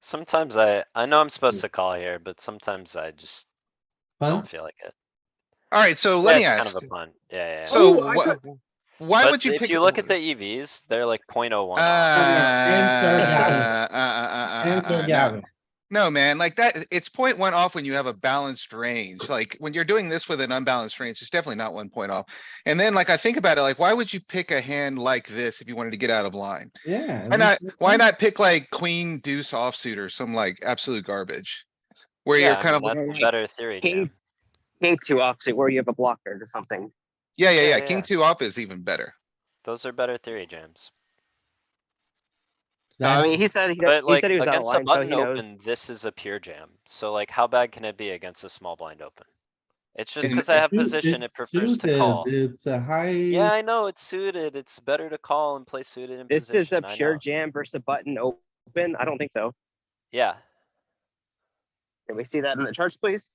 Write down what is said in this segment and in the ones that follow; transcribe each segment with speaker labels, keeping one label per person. Speaker 1: Sometimes I, I know I'm supposed to call here, but sometimes I just
Speaker 2: Huh?
Speaker 1: don't feel like it.
Speaker 3: Alright, so
Speaker 1: Yeah,
Speaker 3: let me
Speaker 1: it's kind
Speaker 3: ask,
Speaker 1: of a pun. Yeah, yeah, yeah.
Speaker 3: so
Speaker 4: Ooh, I
Speaker 3: wha-
Speaker 4: thought-
Speaker 3: why
Speaker 1: But
Speaker 3: would you pick?
Speaker 1: If you look at the EVs, they're like 0.01.
Speaker 3: Uh, uh,
Speaker 1: off.
Speaker 2: yeah,
Speaker 3: uh, uh, uh, uh,
Speaker 2: Answer
Speaker 3: uh, no.
Speaker 2: Gavin.
Speaker 3: No, man, like that, it's point one off when you have a balanced range. Like when you're doing this with an unbalanced range, it's definitely not one point off. And then like I think about it, like why would you pick a hand like this if you wanted to get out of line?
Speaker 2: Yeah.
Speaker 3: Why not,
Speaker 2: that's- that's
Speaker 3: why
Speaker 2: it.
Speaker 3: not pick like queen deuce offsuit or some like absolute garbage? Where
Speaker 1: Yeah,
Speaker 3: you're
Speaker 1: I
Speaker 3: kind of,
Speaker 1: mean,
Speaker 3: like
Speaker 1: that's a Better theory,
Speaker 4: King,
Speaker 1: jam.
Speaker 4: king two opposite where you have a blocker or something.
Speaker 3: yeah, yeah,
Speaker 1: yeah,
Speaker 3: yeah,
Speaker 1: yeah, yeah.
Speaker 3: king two off is even better.
Speaker 1: Those are better theory jams.
Speaker 4: I
Speaker 2: That-
Speaker 4: mean, he said, he,
Speaker 1: But
Speaker 4: he
Speaker 1: like,
Speaker 4: said he was out of
Speaker 1: against a
Speaker 4: line, so
Speaker 1: button
Speaker 4: he knows.
Speaker 1: open, this is a pure jam. So like, how bad can it be against a small blind open? It's just
Speaker 3: It's
Speaker 1: cuz I have
Speaker 2: Dude,
Speaker 1: position, it
Speaker 2: it's
Speaker 1: prefers to
Speaker 2: suited,
Speaker 1: call.
Speaker 2: It's a high.
Speaker 1: Yeah, I know, it's suited. It's better to call and play suited in
Speaker 4: This
Speaker 1: position.
Speaker 4: is a
Speaker 1: I
Speaker 4: pure
Speaker 1: know.
Speaker 4: jam versus a button open. I don't think so.
Speaker 1: Yeah,
Speaker 4: Can we see that in the charts, please?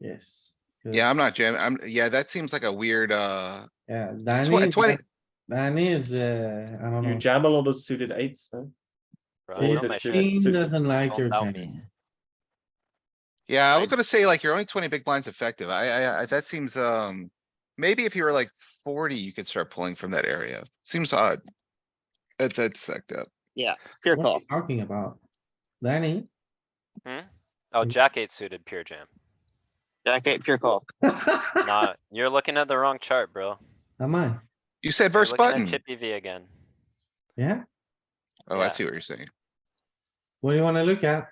Speaker 2: Yes.
Speaker 3: Yeah, I'm not jamming. I'm, yeah, that seems like a weird, uh,
Speaker 2: Yeah, Danny. is
Speaker 3: 20
Speaker 2: not- Danny is, uh, I don't
Speaker 5: You
Speaker 2: know.
Speaker 5: jam a lot of suited eights, huh?
Speaker 1: bro,
Speaker 5: See,
Speaker 1: what
Speaker 5: it's
Speaker 1: am I
Speaker 5: a
Speaker 1: doing?
Speaker 5: suited-
Speaker 2: Team
Speaker 5: suited.
Speaker 2: doesn't like
Speaker 1: Don't
Speaker 2: your
Speaker 1: tell
Speaker 2: jam.
Speaker 1: me.
Speaker 3: Yeah, I
Speaker 1: I-
Speaker 3: was gonna say like you're only twenty big blinds effective. I, I, I, that seems, um, maybe if you were like forty, you could start pulling from that area. Seems odd. That, that's sucked up.
Speaker 4: Pure
Speaker 2: What are
Speaker 4: call.
Speaker 2: you talking about? Danny?
Speaker 1: Hmm? Oh, jack eight suited, pure jam.
Speaker 4: Jack eight, pure call.
Speaker 1: Nah, you're looking at the wrong chart, bro.
Speaker 2: Am I?
Speaker 3: You said
Speaker 1: You're
Speaker 3: verse
Speaker 1: looking at
Speaker 3: button.
Speaker 1: Chippy V again.
Speaker 2: Yeah?
Speaker 3: Oh, I
Speaker 1: yeah.
Speaker 3: see what you're saying.
Speaker 2: What do you wanna look at?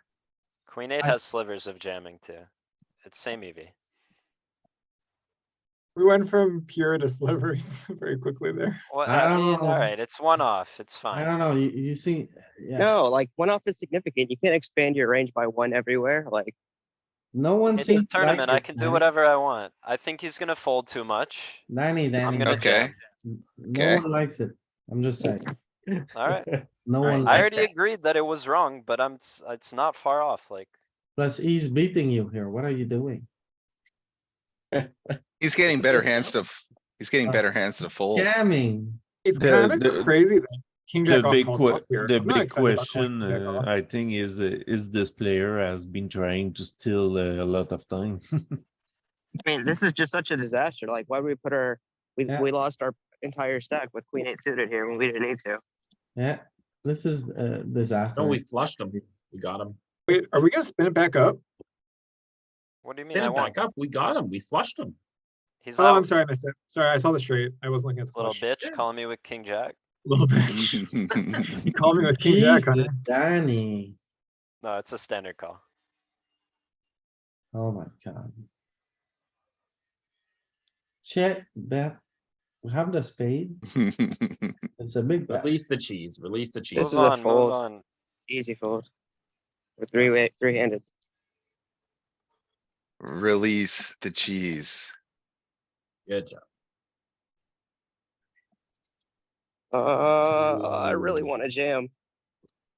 Speaker 1: Queen eight
Speaker 2: I-
Speaker 1: has slivers of jamming too. It's same E EV.
Speaker 6: We went from pure to slivers very quickly there.
Speaker 1: Well,
Speaker 2: I
Speaker 1: I
Speaker 2: don't
Speaker 1: mean,
Speaker 2: know.
Speaker 1: alright, it's one off, it's
Speaker 2: I
Speaker 1: fine.
Speaker 2: don't know, you, you see, yeah,
Speaker 4: No, like one off is significant. You can't expand your range by one everywhere. Like,
Speaker 2: no one
Speaker 1: It's a
Speaker 2: seems. to like
Speaker 1: tournament,
Speaker 2: your
Speaker 1: I can do
Speaker 2: Danny.
Speaker 1: whatever I want. I think he's gonna fold too much.
Speaker 2: Danny,
Speaker 1: I'm
Speaker 2: Danny,
Speaker 1: gonna
Speaker 3: Okay.
Speaker 1: jam.
Speaker 2: n-
Speaker 3: okay.
Speaker 2: no one likes it, I'm just saying,
Speaker 1: Alright,
Speaker 2: no
Speaker 4: Alright,
Speaker 2: one
Speaker 1: I
Speaker 2: likes
Speaker 1: already
Speaker 2: it,
Speaker 1: agreed that it was wrong, but I'm, s- it's not far off, like,
Speaker 2: plus he's beating you here, what are you doing?
Speaker 3: He's getting better
Speaker 2: just-
Speaker 3: hands to, f- he's getting
Speaker 2: Uh,
Speaker 3: better hands to fold.
Speaker 2: Jamming,
Speaker 6: It's
Speaker 7: The-
Speaker 6: kind
Speaker 7: the-
Speaker 6: of crazy that king
Speaker 7: The
Speaker 6: jack off
Speaker 7: big,
Speaker 6: calls
Speaker 7: que-
Speaker 6: off here.
Speaker 7: the
Speaker 6: I'm not
Speaker 7: big
Speaker 6: excited about calling
Speaker 7: question,
Speaker 6: king jack
Speaker 7: uh,
Speaker 6: off.
Speaker 7: I think is, uh, is this player has been trying to steal uh, a lot of time.
Speaker 4: I mean, this is just such a disaster. Like, why would we put our, we,
Speaker 2: Yeah.
Speaker 4: we lost our entire stack with queen eight suited here when we didn't need to.
Speaker 2: yeah, this is a disaster.
Speaker 8: No, we flushed them. We got them.
Speaker 6: Wait, are we gonna spin it back up?
Speaker 1: what do you mean
Speaker 8: Spin
Speaker 1: I
Speaker 8: it back
Speaker 1: won't?
Speaker 8: up. We got them. We flushed them.
Speaker 1: He's
Speaker 6: Oh, I'm
Speaker 1: out,
Speaker 6: sorry, I missed it. Sorry, I saw the straight. I wasn't looking at the
Speaker 2: Oh,
Speaker 1: little
Speaker 6: flush.
Speaker 1: bitch calling me with king jack.
Speaker 6: Little bitch. You called me with king jack on it.
Speaker 2: Jesus, Danny,
Speaker 1: No, it's a standard call.
Speaker 2: oh my god. Check bet, we have the spade, it's a big bet,
Speaker 8: Release the cheese. Release the cheese.
Speaker 4: This
Speaker 1: Move
Speaker 4: is a
Speaker 1: on, move
Speaker 4: fold.
Speaker 1: on.
Speaker 4: Easy fold. With three way, three handed.
Speaker 3: Release the cheese.
Speaker 8: Good job.
Speaker 4: Uh, I really want to jam.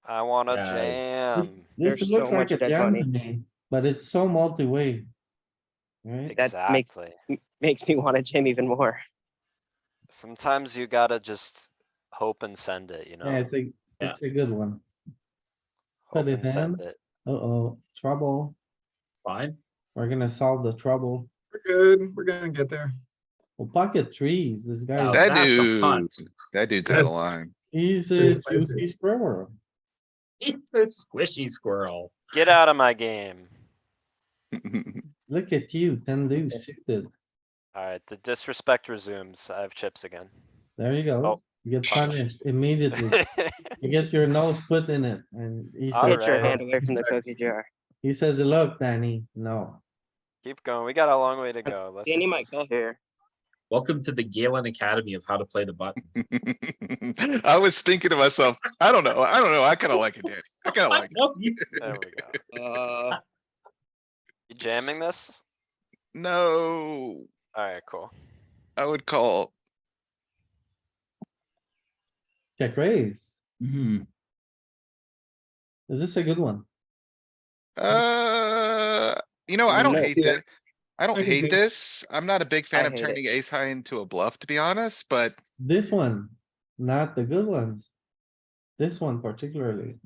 Speaker 1: I wanna
Speaker 8: Yeah.
Speaker 2: This-
Speaker 1: jam.
Speaker 2: this
Speaker 4: There's
Speaker 2: looks
Speaker 4: so
Speaker 2: like a
Speaker 4: much dead
Speaker 2: jam
Speaker 4: money.
Speaker 2: to me, but it's so multi-way. Right?
Speaker 4: That makes-
Speaker 1: Exactly.
Speaker 4: Makes me want to jam even more.
Speaker 1: Sometimes you gotta just hope and send it, you know?
Speaker 2: Yeah, it's a,
Speaker 8: Yeah.
Speaker 2: it's a good one.
Speaker 1: Hope
Speaker 2: put it
Speaker 1: and send
Speaker 2: in.
Speaker 1: it.
Speaker 2: Uh-oh, trouble.
Speaker 8: It's fine.
Speaker 2: We're gonna solve the trouble.
Speaker 6: We're good. We're gonna get there.
Speaker 2: Well, pocket trees, this
Speaker 8: Now,
Speaker 2: guy,
Speaker 3: That
Speaker 8: that's a
Speaker 3: dude-
Speaker 8: punt.
Speaker 3: That dude's out of
Speaker 6: That's-
Speaker 3: line.
Speaker 2: he's
Speaker 6: pretty
Speaker 2: a
Speaker 6: spicy.
Speaker 2: juicy squirrel.
Speaker 8: It's a squishy squirrel.
Speaker 1: Get out of my game.
Speaker 2: Look at you, ten deuce suited.
Speaker 1: Alright, the disrespect resumes. I have chips again.
Speaker 2: There you go.
Speaker 1: Oh.
Speaker 2: You get
Speaker 1: Fuck.
Speaker 2: punished immediately. You get your nose put in it and he says,
Speaker 4: Get your
Speaker 1: Alright.
Speaker 4: hand away from the cookie jar.
Speaker 2: he says, look, Danny, no.
Speaker 1: Keep going. We got a long way to go. Let's
Speaker 4: Danny
Speaker 1: do
Speaker 4: might go
Speaker 1: this.
Speaker 4: here.
Speaker 8: Welcome to the Galen Academy of how to play the button.
Speaker 3: I was thinking to myself, I don't know, I don't know, I kinda like it, Danny. I kinda like it.
Speaker 8: Nope, you-
Speaker 1: There we go.
Speaker 4: Uh,
Speaker 1: You jamming this?
Speaker 3: No,
Speaker 1: Alright, cool.
Speaker 3: I would call.
Speaker 2: Check raise.
Speaker 7: Hmm.
Speaker 2: Is this a good one?
Speaker 3: Uh, you know, I don't
Speaker 4: Yeah.
Speaker 3: hate
Speaker 6: Yeah.
Speaker 3: that. I don't
Speaker 6: I can see
Speaker 3: hate
Speaker 6: it.
Speaker 3: this. I'm not a big fan
Speaker 4: I
Speaker 3: of
Speaker 4: hate it.
Speaker 3: turning ace high into a bluff, to be honest, but
Speaker 2: This one, not the good ones. This one particularly.